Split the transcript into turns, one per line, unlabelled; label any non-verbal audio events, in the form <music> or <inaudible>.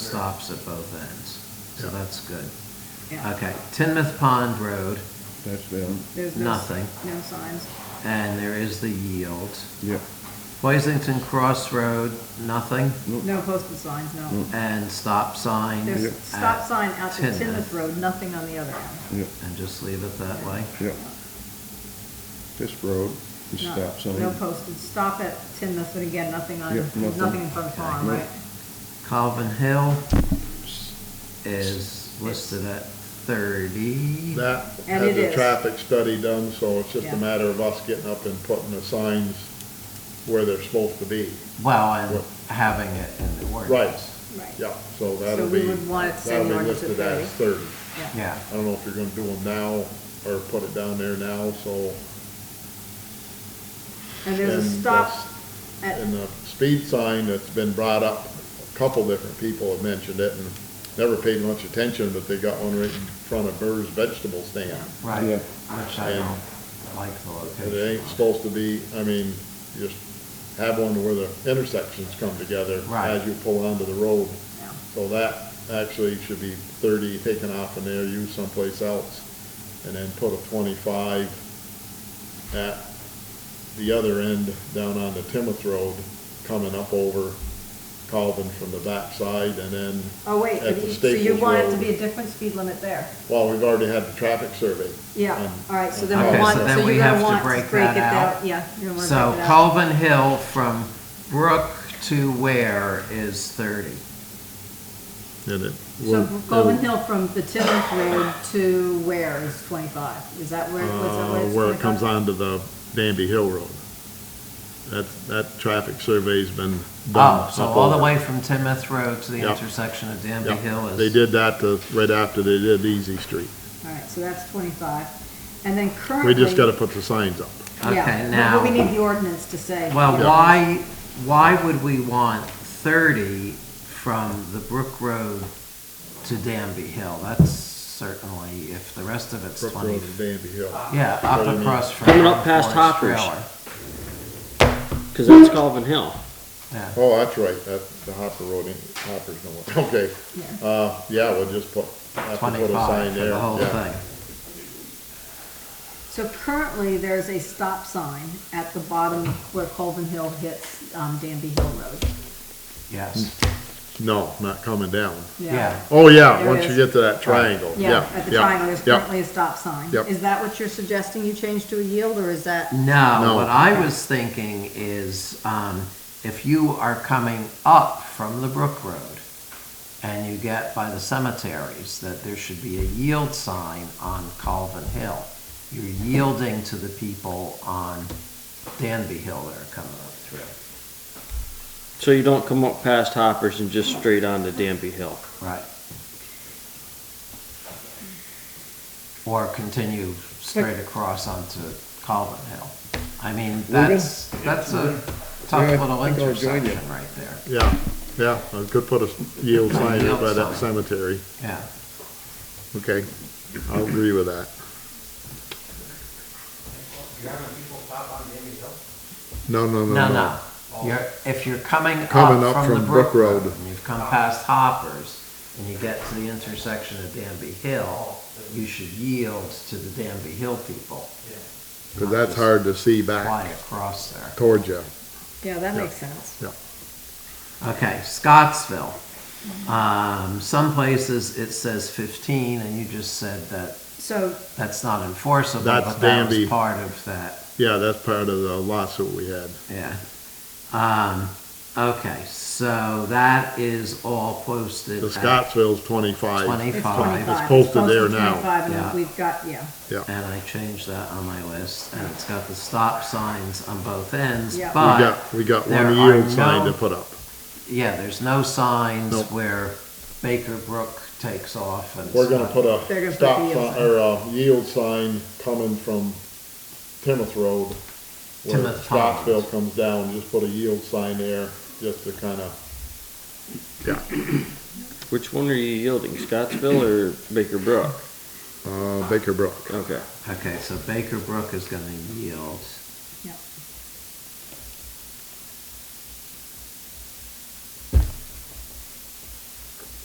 stops at both ends, so
Yeah.
that's good.
Yeah.
Okay, Tinmouth Pond Road,
That's down,
There's no s-
Nothing.
No signs.
and there is the yield.
yeah.
Hoisington Cross Road, nothing,
No,
No posted signs, no.
and stop sign.
There's
Yep.
stop
Mm. at
sign out to
Tinmouth,
Tinmouth Road, nothing on the other end.
yeah,
And just leave it that way.
yeah. This road, this
No-
stop sign.
No posted, stop at Tinmouth, and again, nothing on,
Yep,
there's
nothing.
nothing in front of the farm,
Nope.
right?
Calvin Hill is listed at thirty.
That
And
had
it
the
is.
traffic study done, so it's just
Yeah.
a matter of us getting up and putting the signs where they're supposed to be.
Well, and having it in the ordinance.
Right,
Right.
yeah, so that'll
we
be,
would want it to say
that'll
north
be
to
listed as thirty.
Yeah,
I don't know if you're gonna do them now or put it down there now, so.
And there's a
and
stop
that's-
at,
And the speed sign that's been brought up, a couple different people have mentioned it and never paid much attention, but they got one right in front of Burr's vegetable stand.
right,
Yeah.
which I
And-
don't like the
And
location.
it ain't supposed to be, I mean, just have one where the intersections come together
Right.
as you pull onto the road.
yeah.
So that actually should be thirty taken off in there, used someplace else, and then put a twenty-five at the other end down on the Timoth Road, coming up over Calvin from the backside, and then,
oh wait,
At
but
the
you- so you
Staples
want it to
Road.
be a different speed limit there?
well, we've already had the traffic survey.
Yeah,
on-
all right, so
on
then we
Okay,
want,
so
so
then we
you're
have to
gonna want to
break
break
that
it
out.
out, yeah. you're gonna wanna
So
break it out.
Calvin Hill from Brook to where is thirty?
And it
So
will-
Golden
it'll-
Hill from the Timoth Road to where is twenty-five? Is that where, was that where
Uh,
it's
where it comes
25?
onto the Danby Hill Road. That, that traffic survey's been done.
Oh, so
up
all the
over.
way from Timoth Road to the
Yep.
intersection of Danby
Yeah,
Hill is.
They did that to, right after they did Easy Street.
All right, so that's twenty-five. And then currently.
We just gotta put the signs up.
Yeah,
Okay,
but-
now-
But we need the ordinance to say.
Well,
Yeah.
why, why would we want thirty from the Brook Road to Danby Hill? That's certainly, if the rest of it's
Brook
twenty.
Road and Danby Hill.
Ah.
Yeah,
What do
up
you mean?
across from.
Coming up past
Forest
Hoppers.
Trailer.
Because that's Calvin Hill.
Yeah,
Oh, that's right, that, the Hopper Road, ain't- Hopper's no, <laughs> okay.
Yeah.
Uh, yeah, we'll just put, have to put a
twenty-five
sign
for
there,
the whole
yeah.
thing.
So currently, there's a stop sign at the bottom where Colvin Hill hits um, Danby Hill Road.
Yes,
No, not coming down.
yeah.
Oh, yeah,
There
once you
is.
get to that triangle, yeah,
Yeah, at the
yeah,
triangle, there's
yeah.
currently a stop sign.
Yep.
Is that what you're suggesting you change to a yield, or is that?
No,
No.
what I was thinking is, um, if you are coming up from the Brook Road and you get by the cemeteries, that there should be a yield sign on Calvin Hill. You're yielding to the people on Danby Hill that are coming up through.
So you don't come up past Hoppers and just straight on to Danby Hill.
Right. Or continue straight across onto Calvin Hill. I mean, that's, that's a tough
Yeah, I
little
think I'll join you.
intersection right there.
Yeah, yeah, I could put a yield sign up by that
Yield sign.
cemetery,
Yeah,
okay, I'll agree with that. No, no, no,
no,
no.
no. You're, if you're coming up
Coming up
from the
from
Brook
Brook
Road,
Road.
and you've come past Hoppers, and you get to the intersection of Danby Hill, you should yield to the Danby Hill people,
Because that's hard to see
fly
back
across there.
towards you.
Yeah, that
Yeah.
makes sense.
Okay, Scottsville. Um, some places it says fifteen, and you just said that
So,
that's not enforceable,
That's
but that was
Danby.
part of that,
Yeah, that's part of the lawsuit we had.
yeah. Um, okay, so that is all posted
The
at
Scottsville's twenty-five.
it's
twenty-five.
twenty-five.
It's posted there now.
25,
Yeah.
and we've got, yeah,
And I changed that on my list, and it's got the stop signs on both ends,
Yeah. We
We
but,
got, we got
there
one yield
are
sign
no-
to put up.
yeah, there's no signs
Nope.
where Baker Brook takes off and.
We're gonna put
They're gonna
a
put
stop
the yield
sign, or a yield sign coming from Timoth Road. Where
Timoth Pond.
Scottsville comes down, just put a yield sign there, just to kinda,
Which one are you yielding, Scottsville or Baker Brook?
uh, Baker Brook.
Okay.
Okay, so Baker Brook is gonna yield.
Yeah.